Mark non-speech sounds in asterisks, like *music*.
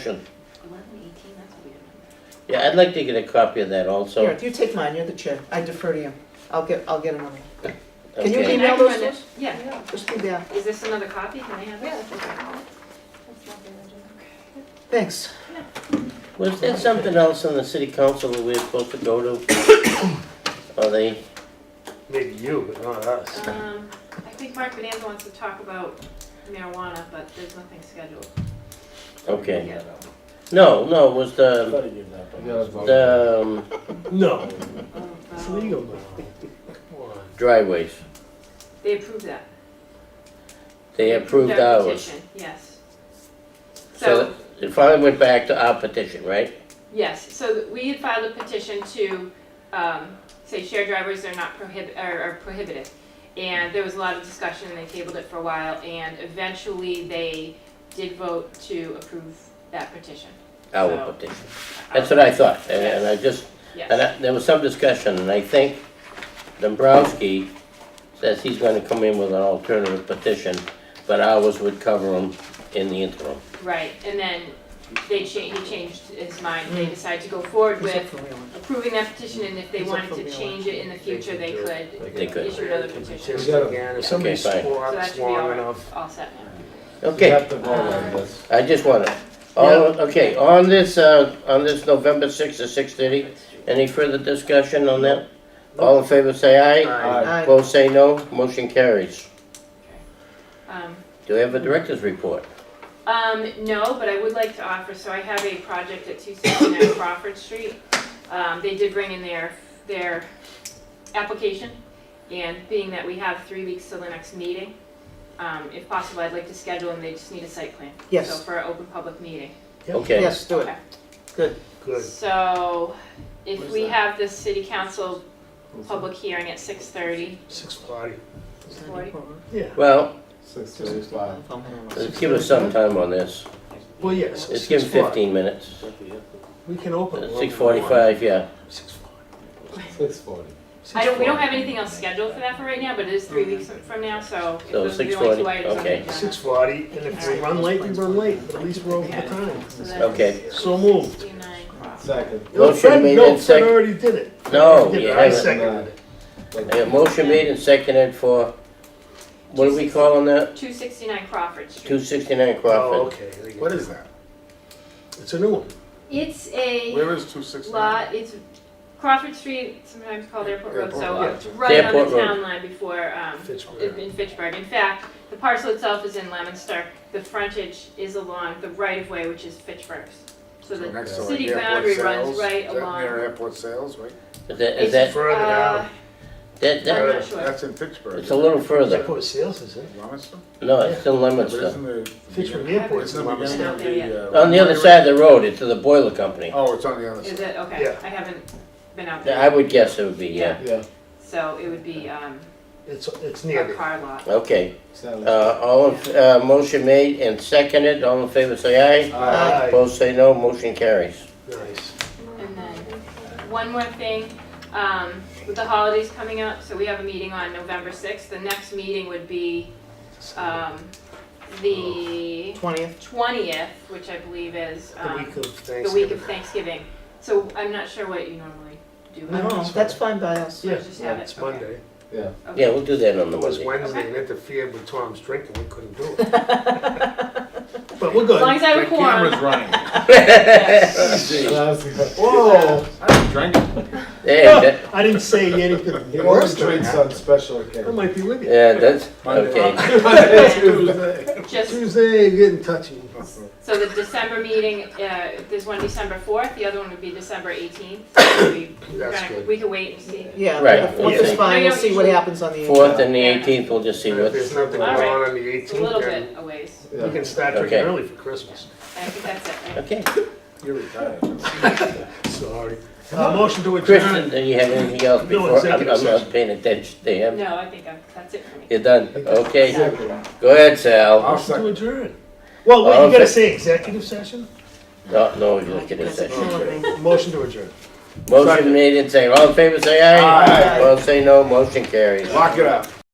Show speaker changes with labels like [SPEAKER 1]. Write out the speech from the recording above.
[SPEAKER 1] Motion.
[SPEAKER 2] Eleven eighteen, that's a weird number.
[SPEAKER 1] Yeah, I'd like to get a copy of that also.
[SPEAKER 3] Here, you take mine, you're the chair, I defer to you. I'll get, I'll get another. Can you
[SPEAKER 1] Okay.
[SPEAKER 3] email
[SPEAKER 2] I
[SPEAKER 3] those
[SPEAKER 2] run
[SPEAKER 3] to
[SPEAKER 2] it-
[SPEAKER 3] us?
[SPEAKER 2] Yeah.
[SPEAKER 3] Just do that.
[SPEAKER 2] Is this another copy? Can I have it?
[SPEAKER 3] Thanks.
[SPEAKER 1] Was there something else on the city council that we were supposed to go to? *coughs* Are they,
[SPEAKER 4] Maybe you, but not us.
[SPEAKER 2] Um, I think Mark Bonanza wants to talk about marijuana, but there's nothing scheduled.
[SPEAKER 1] okay.
[SPEAKER 2] Yeah.
[SPEAKER 1] No, no, it was the, the um,
[SPEAKER 4] No,
[SPEAKER 2] Oh,
[SPEAKER 4] it's
[SPEAKER 2] wow.
[SPEAKER 4] legal now. Come on.
[SPEAKER 1] driveways.
[SPEAKER 2] They approved that.
[SPEAKER 1] They approved
[SPEAKER 2] Their
[SPEAKER 1] ours.
[SPEAKER 2] petition, Yes.
[SPEAKER 1] So
[SPEAKER 2] So,
[SPEAKER 1] it finally went back to our petition, right?
[SPEAKER 2] yes, so we had filed a petition to, um, say shared drivers are not prohibit, are are prohibited. And there was a lot of discussion, and they tabled it for a while, and eventually they did vote to approve that petition.
[SPEAKER 1] Our
[SPEAKER 2] So-
[SPEAKER 1] petition. That's what I thought, and- and I just,
[SPEAKER 2] Yes.
[SPEAKER 1] and I- there was some discussion, and I think Dombrowski says he's gonna come in with an alternative petition, but ours would cover him in the interim.
[SPEAKER 2] Right, and then they changed, he changed his mind, they decided to go forward
[SPEAKER 3] Who's up
[SPEAKER 2] with
[SPEAKER 3] for reelection?
[SPEAKER 2] approving that petition, and if they
[SPEAKER 3] It's up
[SPEAKER 2] wanted
[SPEAKER 3] for
[SPEAKER 2] to change it in the future, they could
[SPEAKER 1] They could.
[SPEAKER 2] issue another petition.
[SPEAKER 4] Just
[SPEAKER 2] So
[SPEAKER 4] again, if somebody
[SPEAKER 1] Okay, fine.
[SPEAKER 2] that should
[SPEAKER 4] squats
[SPEAKER 2] be
[SPEAKER 4] long
[SPEAKER 2] all,
[SPEAKER 4] enough.
[SPEAKER 2] all set now.
[SPEAKER 1] Okay. I just wanna, all, okay, on this, uh, on this November sixth at six thirty, any further discussion on that? All in favor say aye,
[SPEAKER 4] Aye.
[SPEAKER 3] Aye.
[SPEAKER 1] opposed say no, motion carries.
[SPEAKER 2] Um,
[SPEAKER 1] Do we have a director's report?
[SPEAKER 2] Um, no, but I would like to offer, so I have a project at two sixty-nine Crawford Street. Um, they did bring in their, their application, and being that we have three weeks till the next meeting, um, if possible, I'd like to schedule, and they just need a site plan.
[SPEAKER 3] Yes.
[SPEAKER 2] So for an open public meeting.
[SPEAKER 1] Okay,
[SPEAKER 3] Yes, do it.
[SPEAKER 2] Okay.
[SPEAKER 4] Good.
[SPEAKER 2] So,
[SPEAKER 4] What
[SPEAKER 2] if
[SPEAKER 4] is
[SPEAKER 2] we
[SPEAKER 4] that?
[SPEAKER 2] have the city council public hearing at six thirty,
[SPEAKER 4] Six forty.
[SPEAKER 2] Forty.
[SPEAKER 4] Yeah.
[SPEAKER 1] well,
[SPEAKER 5] Six
[SPEAKER 1] Uh,
[SPEAKER 5] thirty-five.
[SPEAKER 1] let's give us some time on this.
[SPEAKER 4] Well, yes.
[SPEAKER 1] Let's give 'em fifteen minutes.
[SPEAKER 4] We can open.
[SPEAKER 1] Six forty-five, yeah.
[SPEAKER 4] Six forty.
[SPEAKER 5] Six forty.
[SPEAKER 2] I don't, we don't have anything else scheduled for that for right now, but it is
[SPEAKER 5] Mm-hmm.
[SPEAKER 2] three weeks from now, so. if
[SPEAKER 1] So
[SPEAKER 2] those are the only
[SPEAKER 1] 6:40,
[SPEAKER 2] two items on the
[SPEAKER 1] okay.
[SPEAKER 2] agenda.
[SPEAKER 4] Six forty, and if we run late, we run late, but at least we're over the time.
[SPEAKER 2] So that's
[SPEAKER 1] Okay.
[SPEAKER 4] So moved.
[SPEAKER 2] 69 Crawford.
[SPEAKER 5] Second.
[SPEAKER 4] No,
[SPEAKER 1] Motion
[SPEAKER 4] Fred,
[SPEAKER 1] made
[SPEAKER 4] no,
[SPEAKER 1] and
[SPEAKER 4] Fred
[SPEAKER 1] sec-
[SPEAKER 4] already did it.
[SPEAKER 1] No, you
[SPEAKER 4] Yeah, I
[SPEAKER 1] Oh, haven't.
[SPEAKER 4] seconded it.
[SPEAKER 1] A motion made and seconded for, what do we call on that?
[SPEAKER 2] 269 Crawford
[SPEAKER 1] Two
[SPEAKER 2] Street.
[SPEAKER 1] sixty-nine
[SPEAKER 4] Oh,
[SPEAKER 1] Crawford.
[SPEAKER 4] okay. What is that? It's a new one.
[SPEAKER 2] It's a
[SPEAKER 5] Where is two sixty?
[SPEAKER 2] lot, it's Crawford Street, sometimes called Airport Road, so
[SPEAKER 5] Airport
[SPEAKER 2] it's
[SPEAKER 5] Road.
[SPEAKER 2] right on
[SPEAKER 1] Airport
[SPEAKER 2] the
[SPEAKER 1] Road.
[SPEAKER 2] town line before, um,
[SPEAKER 4] Fitchburg.
[SPEAKER 2] in Fitchburg. In fact, the parcel itself is in Lemonster. The frontage is along the right-of-way, which is Fitchburg's. So the
[SPEAKER 5] Next to like
[SPEAKER 2] city
[SPEAKER 5] airport
[SPEAKER 2] boundary runs
[SPEAKER 5] sales.
[SPEAKER 2] right
[SPEAKER 5] Is that Near
[SPEAKER 2] along.
[SPEAKER 5] airport sales, right?
[SPEAKER 4] Oh,
[SPEAKER 1] Is that, is
[SPEAKER 2] It's,
[SPEAKER 1] that,
[SPEAKER 4] Further down.
[SPEAKER 2] uh,
[SPEAKER 1] that,
[SPEAKER 2] I'm
[SPEAKER 1] that,
[SPEAKER 2] not sure.
[SPEAKER 5] That's in Pittsburgh.
[SPEAKER 1] it's a little further.
[SPEAKER 4] Airport sales is in.
[SPEAKER 5] Leominster?
[SPEAKER 1] No, it's still
[SPEAKER 5] But
[SPEAKER 1] Lemonster.
[SPEAKER 5] isn't the.
[SPEAKER 4] Fitchburg
[SPEAKER 5] isn't
[SPEAKER 4] Airport is
[SPEAKER 5] the
[SPEAKER 4] in Leominster.
[SPEAKER 5] beginning of the, uh,
[SPEAKER 1] On the other side of the road, it's to the boiler company.
[SPEAKER 5] Oh, it's on the other
[SPEAKER 2] Is
[SPEAKER 5] side.
[SPEAKER 2] it, okay,
[SPEAKER 4] Yeah.
[SPEAKER 2] I haven't been out
[SPEAKER 1] I
[SPEAKER 2] there.
[SPEAKER 1] would guess it would be, yeah.
[SPEAKER 5] Yeah.
[SPEAKER 2] So it would be, um,
[SPEAKER 4] It's, it's near
[SPEAKER 2] a
[SPEAKER 4] there.
[SPEAKER 2] car lot.
[SPEAKER 1] Okay, uh, all, in- uh, motion made and seconded, all in favor say aye.
[SPEAKER 4] Aye.
[SPEAKER 1] Opposed say no, motion carries.
[SPEAKER 4] Nice.
[SPEAKER 2] And then, one more thing, um, with the holidays coming up, so we have a meeting on November sixth, the next meeting would be, um, the
[SPEAKER 3] Twentieth,
[SPEAKER 2] twentieth, which I believe is,
[SPEAKER 4] The
[SPEAKER 2] um,
[SPEAKER 4] week of Thanksgiving.
[SPEAKER 2] the week of Thanksgiving. So I'm not sure what you normally do.
[SPEAKER 3] no,
[SPEAKER 4] No, it's
[SPEAKER 3] that's fine by us.
[SPEAKER 2] So
[SPEAKER 4] Yeah,
[SPEAKER 2] just have it,
[SPEAKER 4] It's
[SPEAKER 2] okay.
[SPEAKER 4] Monday.
[SPEAKER 1] Yeah, we'll do that on the
[SPEAKER 4] It was
[SPEAKER 1] Monday. *laughs*
[SPEAKER 4] Wednesday and interfered with Tom's drinking, we couldn't do
[SPEAKER 2] *laughs*
[SPEAKER 4] it. But we're
[SPEAKER 2] As long
[SPEAKER 4] good.
[SPEAKER 2] as I have a quorum.
[SPEAKER 5] running.
[SPEAKER 4] Whoa!
[SPEAKER 1] Hey, that-
[SPEAKER 4] I didn't
[SPEAKER 2] *laughs*
[SPEAKER 4] say anything
[SPEAKER 5] He
[SPEAKER 4] worse
[SPEAKER 5] always
[SPEAKER 4] than
[SPEAKER 5] drinks
[SPEAKER 4] that.
[SPEAKER 5] on special
[SPEAKER 4] I
[SPEAKER 5] *laughs* occasion.
[SPEAKER 4] might be with you.
[SPEAKER 1] yeah, that's, okay.
[SPEAKER 4] Tuesday.
[SPEAKER 2] Just,
[SPEAKER 4] Tuesday, you're getting touchy.
[SPEAKER 2] so the December meeting, uh, there's one December fourth, the other one would be December eighteenth. We
[SPEAKER 4] That's
[SPEAKER 2] kinda-
[SPEAKER 4] good.
[SPEAKER 2] We could wait and see.
[SPEAKER 3] Yeah,
[SPEAKER 1] Right.
[SPEAKER 3] the fourth is
[SPEAKER 4] Yeah.
[SPEAKER 3] fine, we'll see what happens on the.
[SPEAKER 1] Fourth and the eighteenth, we'll just see
[SPEAKER 4] And If
[SPEAKER 1] what,
[SPEAKER 4] there's nothing going
[SPEAKER 2] All right.
[SPEAKER 4] on on the
[SPEAKER 2] It's a little
[SPEAKER 4] 18th, then
[SPEAKER 2] bit a ways.
[SPEAKER 4] we
[SPEAKER 5] Yeah.
[SPEAKER 4] can start drinking
[SPEAKER 1] Okay.
[SPEAKER 4] early for Christmas.
[SPEAKER 2] I think that's it, right?
[SPEAKER 1] okay.
[SPEAKER 5] You're retired.
[SPEAKER 4] Sorry. Uh, Motion to
[SPEAKER 1] Kristen,
[SPEAKER 4] adjourn.
[SPEAKER 1] do you have anything else
[SPEAKER 4] No
[SPEAKER 1] before, I'm,
[SPEAKER 4] executive
[SPEAKER 1] I'm not
[SPEAKER 4] session.
[SPEAKER 1] paying attention to him.
[SPEAKER 2] No, I think I'm, that's it for me.
[SPEAKER 1] You're done, okay?
[SPEAKER 5] Executive.
[SPEAKER 1] Go ahead, Sal.
[SPEAKER 5] I'll
[SPEAKER 4] Motion to
[SPEAKER 5] second.
[SPEAKER 4] adjourn. Well,
[SPEAKER 1] All
[SPEAKER 4] wait,
[SPEAKER 1] in
[SPEAKER 4] you gotta
[SPEAKER 1] fa-
[SPEAKER 4] say executive session?
[SPEAKER 1] No, no, executive session.
[SPEAKER 4] Motion to adjourn.
[SPEAKER 1] Motion made and seconded, all in favor say aye.
[SPEAKER 5] Aye.
[SPEAKER 1] Opposed say no, motion carries.
[SPEAKER 5] Lock it up.